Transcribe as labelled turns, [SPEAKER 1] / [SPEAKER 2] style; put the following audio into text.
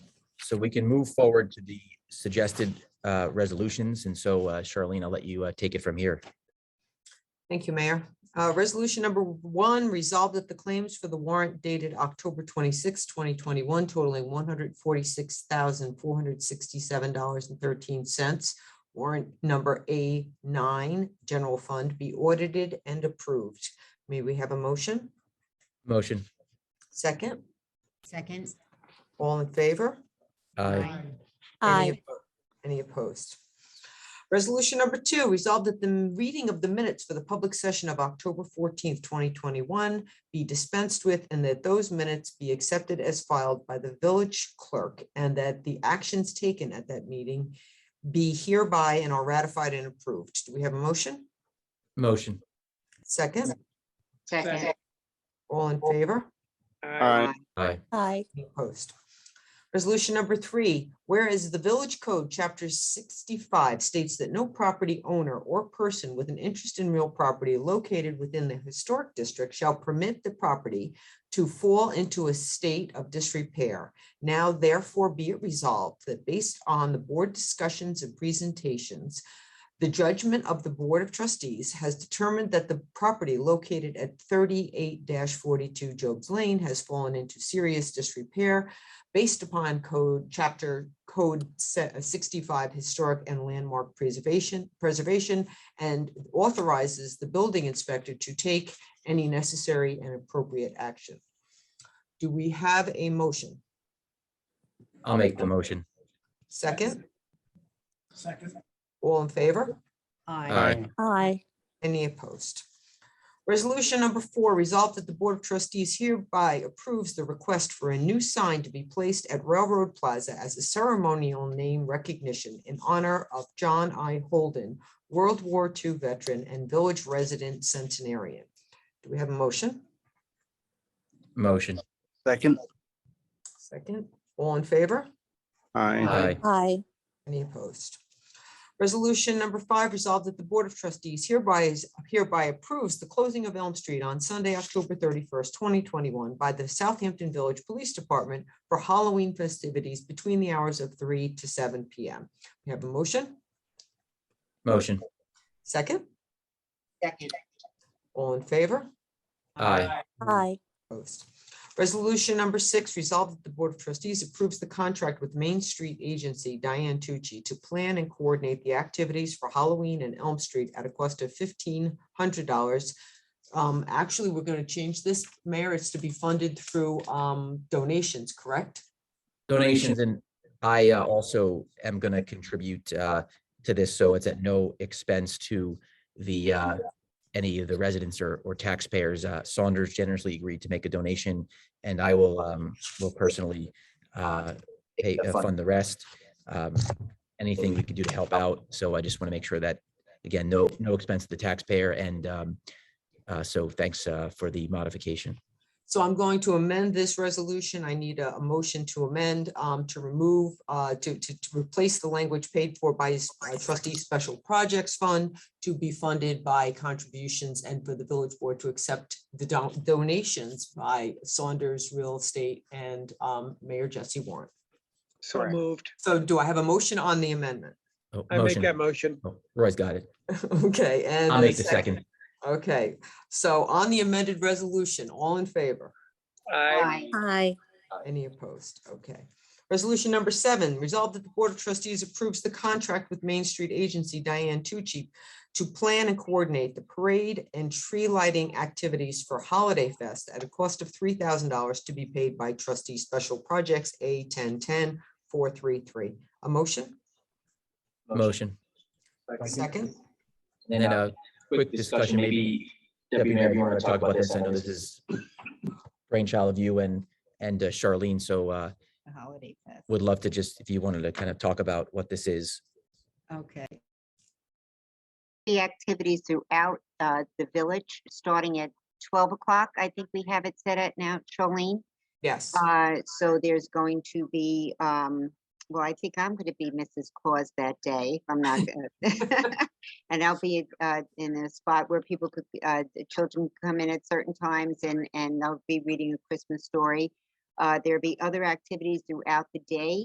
[SPEAKER 1] so we can move forward to the suggested uh, resolutions. And so uh, Charlene, I'll let you uh, take it from here.
[SPEAKER 2] Thank you, Mayor. Uh, Resolution number one, resolved that the claims for the warrant dated October 26, 2021 totaling $146,467.13. Warrant number A9, General Fund, be audited and approved. May we have a motion?
[SPEAKER 1] Motion.
[SPEAKER 2] Second,
[SPEAKER 3] Second.
[SPEAKER 2] all in favor?
[SPEAKER 1] Aye.
[SPEAKER 2] Any
[SPEAKER 4] Aye.
[SPEAKER 2] oppo- Any opposed? Resolution number two, resolved that the m- reading of the minutes for the public session of October fourteenth, twenty twenty-one be dispensed with and that those minutes be accepted as filed by the village clerk and that the actions taken at that meeting be hereby and are ratified and approved. Do we have a motion?
[SPEAKER 1] Motion.
[SPEAKER 2] Second,
[SPEAKER 3] Second.
[SPEAKER 2] all in favor?
[SPEAKER 5] Aye.
[SPEAKER 1] Aye.
[SPEAKER 4] Aye.
[SPEAKER 2] Any Opposed. Resolution number three, whereas the Village Code, Chapter sixty-five states that no property owner or person with an interest in real property located within the historic district shall permit the property to fall into a state of disrepair. Now therefore be it resolved that based on the board discussions and presentations, the judgment of the Board of Trustees has determined that the property located at thirty-eight forty-two Job's Lane has fallen into serious disrepair based upon code, chapter code se- uh, sixty-five Historic and Landmark Preservation, Preservation, and authorizes the building inspector to take any necessary and appropriate action. Do we have a motion?
[SPEAKER 1] I'll make the motion.
[SPEAKER 2] Second,
[SPEAKER 5] Second.
[SPEAKER 2] all in favor?
[SPEAKER 1] Aye.
[SPEAKER 4] Aye.
[SPEAKER 2] Any opposed? Resolution number four, resolved that the Board of Trustees hereby approves the request for a new sign to be placed at Railroad Plaza as a ceremonial name recognition in honor of John I. Holden, World War II veteran and village resident centenarian. Do we have a motion?
[SPEAKER 1] Motion.
[SPEAKER 5] Second.
[SPEAKER 2] Second, all in favor?
[SPEAKER 5] Aye.
[SPEAKER 1] Aye.
[SPEAKER 4] Aye.
[SPEAKER 2] Any opposed? Resolution number five, resolved that the Board of Trustees hereby is hereby approves the closing of Elm Street on Sunday, October thirty-first, twenty twenty-one by the Southampton Village Police Department for Halloween festivities between the hours of three to seven P M. We have a motion?
[SPEAKER 1] Motion.
[SPEAKER 2] Second,
[SPEAKER 3] Second.
[SPEAKER 2] all in favor?
[SPEAKER 1] Aye.
[SPEAKER 4] Aye.
[SPEAKER 2] Opposed. Resolution number six, resolved that the Board of Trustees approves the contract with Main Street Agency Diane Tucci to plan and coordinate the activities for Halloween and Elm Street at a cost of fifteen hundred dollars. Um, actually, we're gonna change this, Mayor, it's to be funded through, um, donations, correct?
[SPEAKER 1] Donations and I uh, also am going to contribute uh, to this, so it's at no expense to the uh, any of the residents or or taxpayers. Uh, Saunders generously agreed to make a donation, and I will um, will personally uh, pay
[SPEAKER 5] The
[SPEAKER 1] uh,
[SPEAKER 5] fund.
[SPEAKER 1] fund the rest. Um, Anything we could do to help out, so I just want to make sure that, again, no no expense to the taxpayer, and um, uh, so thanks uh, for the modification.
[SPEAKER 2] So I'm going to amend this resolution. I need a, a motion to amend, um, to remove, uh, to, to, to replace the language paid for by s- uh, trustee special projects fund to be funded by contributions and for the village board to accept the don- donations by Saunders Real Estate and, um, Mayor Jesse Warren.
[SPEAKER 6] So moved.
[SPEAKER 2] So do I have a motion on the amendment?
[SPEAKER 1] Oh,
[SPEAKER 6] I make
[SPEAKER 1] motion.
[SPEAKER 6] that motion.
[SPEAKER 1] Oh, Roy's got it.
[SPEAKER 2] Okay, and.
[SPEAKER 1] I'll
[SPEAKER 2] a
[SPEAKER 1] make the second.
[SPEAKER 2] Okay, so on the amended resolution, all in favor?
[SPEAKER 6] I
[SPEAKER 4] Aye.
[SPEAKER 2] Any opposed? Okay. Resolution number seven, resolved that the Board of Trustees approves the contract with Main Street Agency Diane Tucci to plan and coordinate the parade and tree lighting activities for Holiday Fest at a cost of three thousand dollars to be paid by trustee special projects A 1010 433. A motion?
[SPEAKER 1] Motion.
[SPEAKER 2] Second?
[SPEAKER 1] And then a quick discussion, maybe Deputy Mayor, if you want to talk about this, I know this is brainchild of you and, and uh, Charlene, so uh,
[SPEAKER 3] The Holiday Fest.
[SPEAKER 1] would love to just, if you wanted to kind of talk about what this is.
[SPEAKER 3] Okay.
[SPEAKER 7] the activities throughout uh, the village, starting at 12 o'clock. I think we have it set at now, Charlene.
[SPEAKER 2] Yes.
[SPEAKER 7] Uh, So there's going to be, um, well, I think I'm going to be Mrs. Claus that day. if I'm not. uh, And I'll be uh, in a spot where people could, uh, the children come in at certain times and, and they'll be reading a Christmas story. Uh, There'll be other activities throughout the day.